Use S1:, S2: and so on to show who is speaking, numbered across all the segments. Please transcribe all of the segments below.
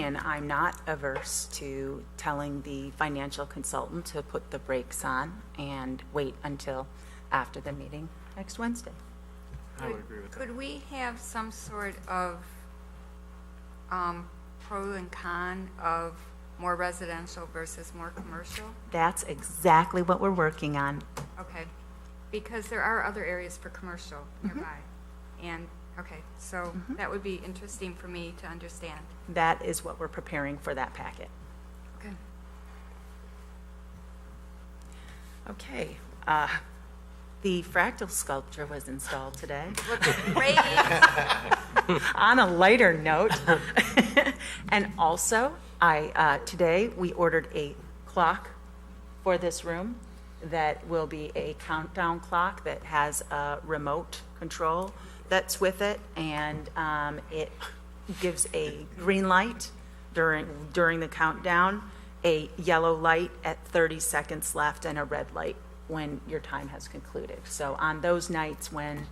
S1: And I'm not averse to telling the financial consultant to put the brakes on and wait until after the meeting next Wednesday.
S2: I would agree with that. Could we have some sort of um, pro and con of more residential versus more commercial?
S1: That's exactly what we're working on.
S2: Okay, because there are other areas for commercial nearby. And, okay, so that would be interesting for me to understand.
S1: That is what we're preparing for that packet.
S2: Okay.
S1: Okay. uh, The fractal sculpture was installed today.
S2: Looks great.
S1: On a lighter note, and also, I, uh, today, we ordered a clock for this room that will be a countdown clock that has a remote control that's with it, and um, it gives a green light during, during the countdown, a yellow light at 30 seconds left, and a red light when your time has concluded. So on those nights when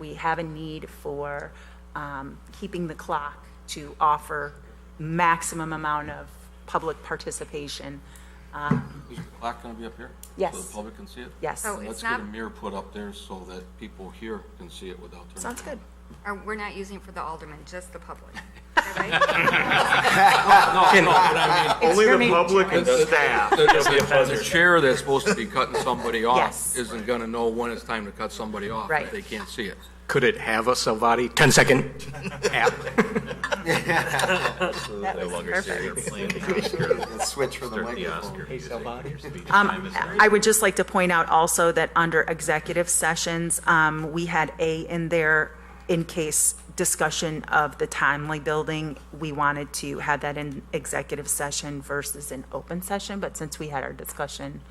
S1: we have a need for um, keeping the clock to offer maximum amount of public participation.
S3: Is the clock going to be up here? So
S1: Yes.
S3: the public can see it?
S1: Yes,
S2: So-
S3: Let's
S2: It's
S3: get a
S2: not-
S3: mirror put up there so that people here can see it without turning.
S1: sounds good.
S2: Or We're not using it for the alderman, just the public. Right?
S4: Only
S1: for
S4: the
S1: me.
S4: public and staff.
S3: The chair that's supposed to be cutting somebody
S1: Yes.
S3: off isn't going to know when it's time to cut somebody off
S1: Right.
S3: if they can't see it.
S5: Could it have a Salvati 10 second app?
S1: That was perfect.
S6: switch for the microphone.
S1: Um, I would just like to point out also that under executive sessions, um, we had A in there in case discussion of the timely building. We wanted to have that in executive session versus an open session, but since we had our discussion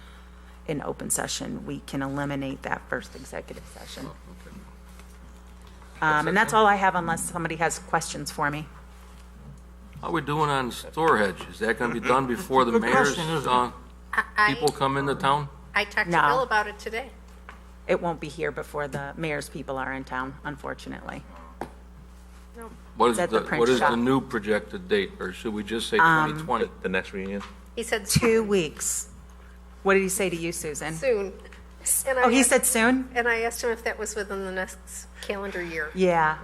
S1: in open session, we can eliminate that first executive session. Um, And that's all I have unless somebody has questions for me.
S3: How we doing on storage? Is that going to be done before the mayor's, uh, people
S7: I,
S3: come into town?
S7: I talked
S1: No.
S7: to Bill about it today.
S1: It won't be here before the mayor's people are in town, unfortunately.
S3: What is
S1: It's at the
S3: the,
S1: print
S3: what is
S1: shop. Um,
S3: the new projected date, or should we just say 2020?
S8: The next reunion?
S7: He said
S1: Two weeks. What did he say to you, Susan?
S7: soon. And I
S1: Oh, he
S7: asked-
S1: said soon?
S7: And I asked him if that was within the next calendar year.
S1: Yeah.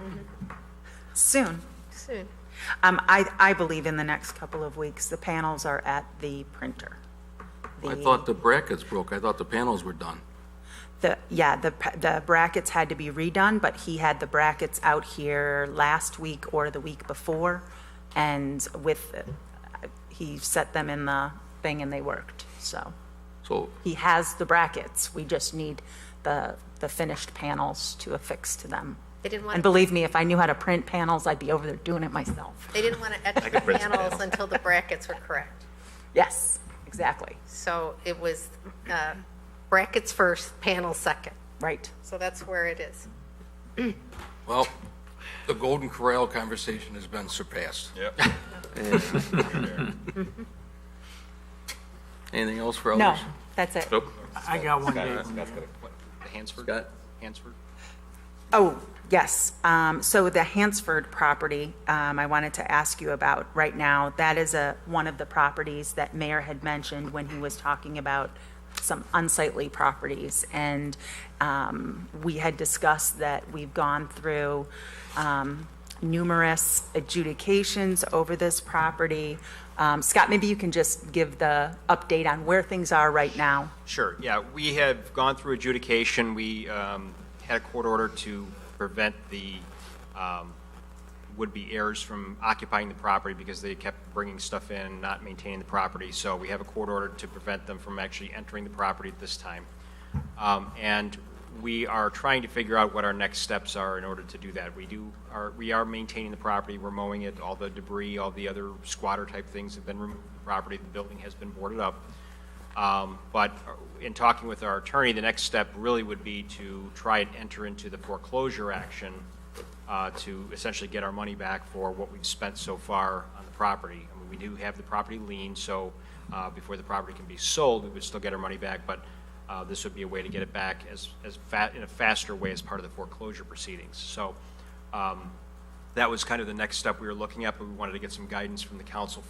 S1: Soon.
S7: Soon.
S1: Um, I, I believe in the next couple of weeks, the panels are at the printer.
S3: I thought the brackets broke, I thought the panels were done.
S1: The, yeah, the, pa- the brackets had to be redone, but he had the brackets out here last week or the week before. And with, uh, he set them in the thing and they worked, so.
S3: So
S1: He has the brackets, we just need the, the finished panels to affix to them.
S7: They didn't
S1: And
S7: want,
S1: believe me, if I knew how to print panels, I'd be over there doing it myself.
S7: they didn't want to etch the
S8: print the
S7: panels until the brackets were correct.
S1: Yes, exactly,
S7: So it was uh, brackets first, panel second.
S1: right.
S7: So that's where it is.
S3: Well, the Golden Corral conversation has been surpassed. Yep. Anything else for
S1: No,
S3: others?
S1: that's it.
S9: I got one day.
S8: Hansford? Hansford?
S1: Oh, yes. Um, So the Hansford property, um, I wanted to ask you about right now. That is a, one of the properties that Mayor had mentioned when he was talking about some unsightly properties. And um, we had discussed that we've gone through um, numerous adjudications over this property. Um, Scott, maybe you can just give the update on where things are right now.
S10: Sure, yeah. We have gone through adjudication. We um, had a court order to prevent the um, would-be heirs from occupying the property because they kept bringing stuff in, not maintaining the property. So we have a court order to prevent them from actually entering the property at this time. Um, And we are trying to figure out what our next steps are in order to do that. We do, are, we are maintaining the property, we're mowing it, all the debris, all the other squatter-type things have been removed from the property, the building has been boarded up. Um, But in talking with our attorney, the next step really would be to try and enter into the foreclosure action uh, to essentially get our money back for what we've spent so far on the property. I mean, We do have the property lien, so uh, before the property can be sold, we would still get our money back, but uh, this would be a way to get it back as, as fa, in a faster way as part of the foreclosure proceedings. So um, that was kind of the next step we were looking at, but we wanted to get some guidance from the council